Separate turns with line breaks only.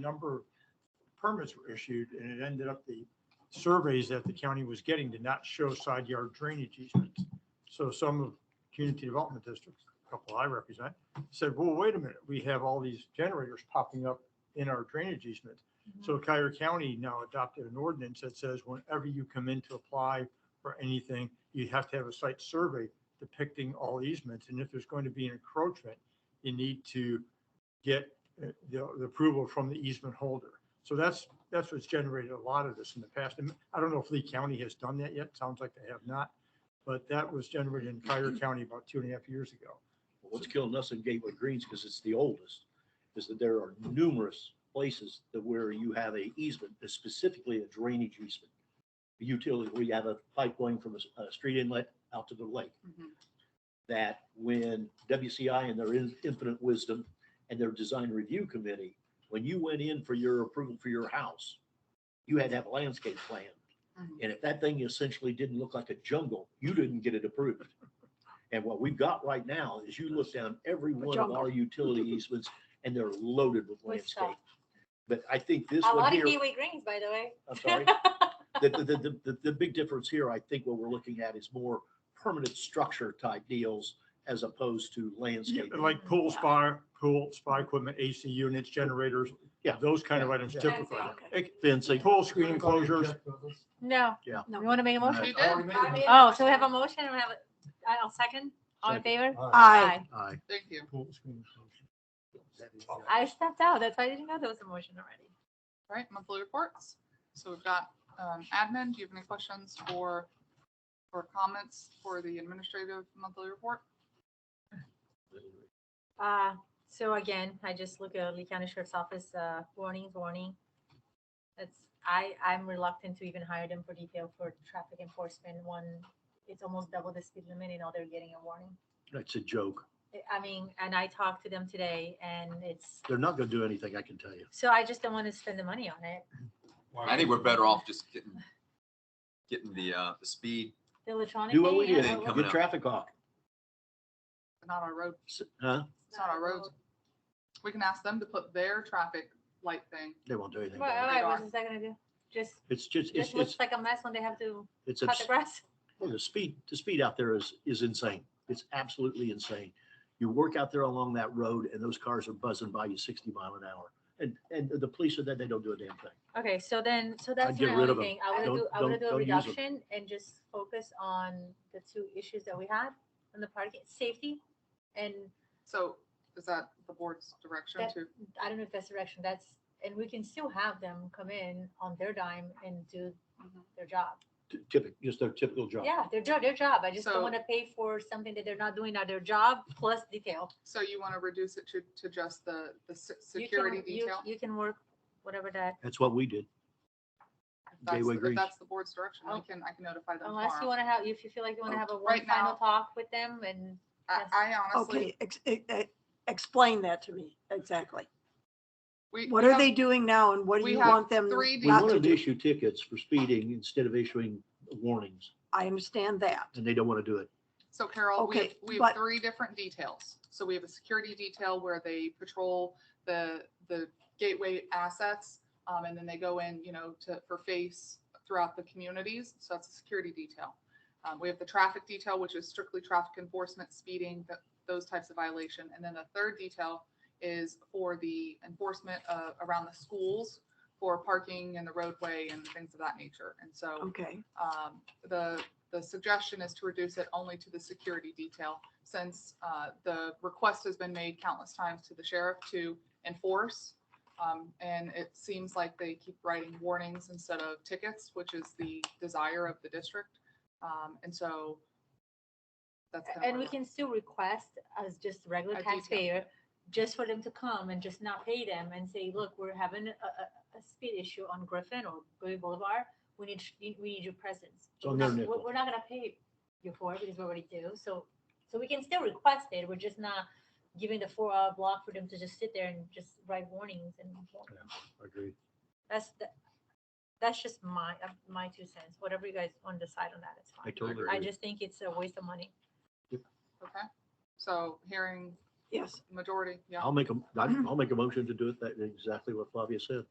number of permits were issued and it ended up the surveys that the county was getting did not show side yard drainage easements. So some of community development districts, a couple I represent, said, well, wait a minute, we have all these generators popping up in our drainage easements. So Cuyahoga County now adopted an ordinance that says whenever you come in to apply for anything, you have to have a site survey depicting all easements. And if there's going to be an encroachment, you need to get uh, the the approval from the easement holder. So that's, that's what's generated a lot of this in the past. And I don't know if Lee County has done that yet. Sounds like they have not. But that was generated in Cuyahoga County about two and a half years ago.
What's killing us in Gateway Greens, because it's the oldest, is that there are numerous places that where you have a easement, that's specifically a drainage easement. a Utility, where you have a pipe going from a, s- a street inlet out to the lake.
Mhm.
That when WCI and their in- infinite wisdom and their design review committee, when you went in for your approval for your house, you had to have a landscape plan.
Mm-hmm.
Mhm.
And if that thing essentially didn't look like a jungle, you didn't get it approved. And what we've got right now is you look down every one of our utility easements and they're loaded with
With stuff.
landscape. But I think this
A
one
lot of
here,
kiwi greens, by the way.
I'm sorry, the, the, the, the, the big difference here, I think what we're looking at is more permanent structure type deals as opposed to
Yeah,
landscape.
Like pool spa, pool spa equipment, AC units, generators.
Yeah.
Those kind of items
Yeah.
typically.
Okay.
It-
Fencing,
Pool screen enclosures.
No.
Yeah.
You want to make a
No.
motion?
You did.
Oh, so we have a motion, we have, a- I'll second, all in favor?
Aye.
aye.
Thank you.
Pool screen enclosures.
I stepped out, that's why I didn't know there was a motion already.
All right, monthly reports. So we've got um, admin. Do you have any questions for, or comments for the administrative monthly report?
Uh, so again, I just look at Lee County Sheriff's Office, uh, warnings, warning. It's, I, I'm reluctant to even hire them for detail for traffic enforcement, one, it's almost double the speed limit, you know, they're getting a warning.
That's a joke.
I- I mean, and I talked to them today, and it's,
They're not gonna do anything, I can tell you.
so I just don't want to spend the money on it,
I think we're better off just getting, getting the, uh, the speed.
the electronic.
Do what we
thing, I
did,
Yeah,
don't know.
coming
get
up.
traffic hawk,
Not our road.
S- huh?
It's not our road. We can ask them to put their traffic light thing.
They won't do anything.
Well,
about it.
alright, what is that gonna do? Just,
It's just, it's,
just
it's,
looks like a mess when they have to
it's.
cut the
abs-
grass.
Well, the speed, the speed out there is, is insane. It's absolutely insane. You work out there along that road and those cars are buzzing by you sixty mile an hour. And, and the police are there, they don't do a damn thing.
Okay, so then, so that's
get
my
rid
only
of 'em.
thing, I wanna
Don't-
do, I wanna
don't-
do a
don't use 'em.
reduction and just focus on the two issues that we had on the parking, safety. And
So is that the board's direction
That-
to?
I don't know if that's the direction, that's, and we can still have them come in on their dime and do
Mhm.
their job.
Ty- Typical, just their typical job.
Yeah, their job, their job, I just
So-
don't wanna pay for something that they're not doing at their job plus detail.
So you want to reduce it to, to just the, the se-
You can-
security
you-
detail?
You can work whatever that,
That's what we did.
If that's-
Gateway
if
Greens.
That's the board's direction. I
Oh.
can, I can notify them
unless you
tomorrow.
wanna have, if you feel like you wanna have a one
Oh, Right
final
now-
talk with them and
I,
yes.
I honestly,
Okay, ex- e- e- explain that to me, exactly.
we.
What
we
are
have-
they doing now and what do
we
you
have
want them
three
We
not to
wanted to
do?
issue tickets for speeding instead of issuing warnings
I understand that.
and they don't want to do it.
So Carol, we have,
Okay,
we have
but-
three different details. So we have a security detail where they patrol the, the gateway assets. Um, and then they go in, you know, to, for face throughout the communities. So that's a security detail. Um, we have the traffic detail, which is strictly traffic enforcement, speeding, th- those types of violation. And then the third detail is for the enforcement, uh, around the schools for parking and the roadway and things of that nature. And so
Okay,
um, the, the suggestion is to reduce it only to the security detail, since uh, the request has been made countless times to the sheriff to enforce. um, And it seems like they keep writing warnings instead of tickets, which is the desire of the district. Um, And so that's. kinda
And
where
we
we're-
can still request as just
A
regular
detail.
taxpayer, just for them to come and just not pay them and say, look, we're having a, a, a speed issue on Griffin or Bowie Boulevard. We need, sh- we need your presence.
It's on their
We're,
nickel.
we're not gonna pay you for it because we already do, so, so we can still request it. We're just not giving the four hour block for them to just sit there and just write warnings and
Agreed.
that's, the- that's just my, uh, my two cents. Whatever you guys want to decide on that, it's
I
fine.
totally
I
agree.
just think it's a waste of money.
Okay, so hearing
Yes.
majority, yeah.
I'll make a, I'll make a motion to do it that exactly what Flavia said.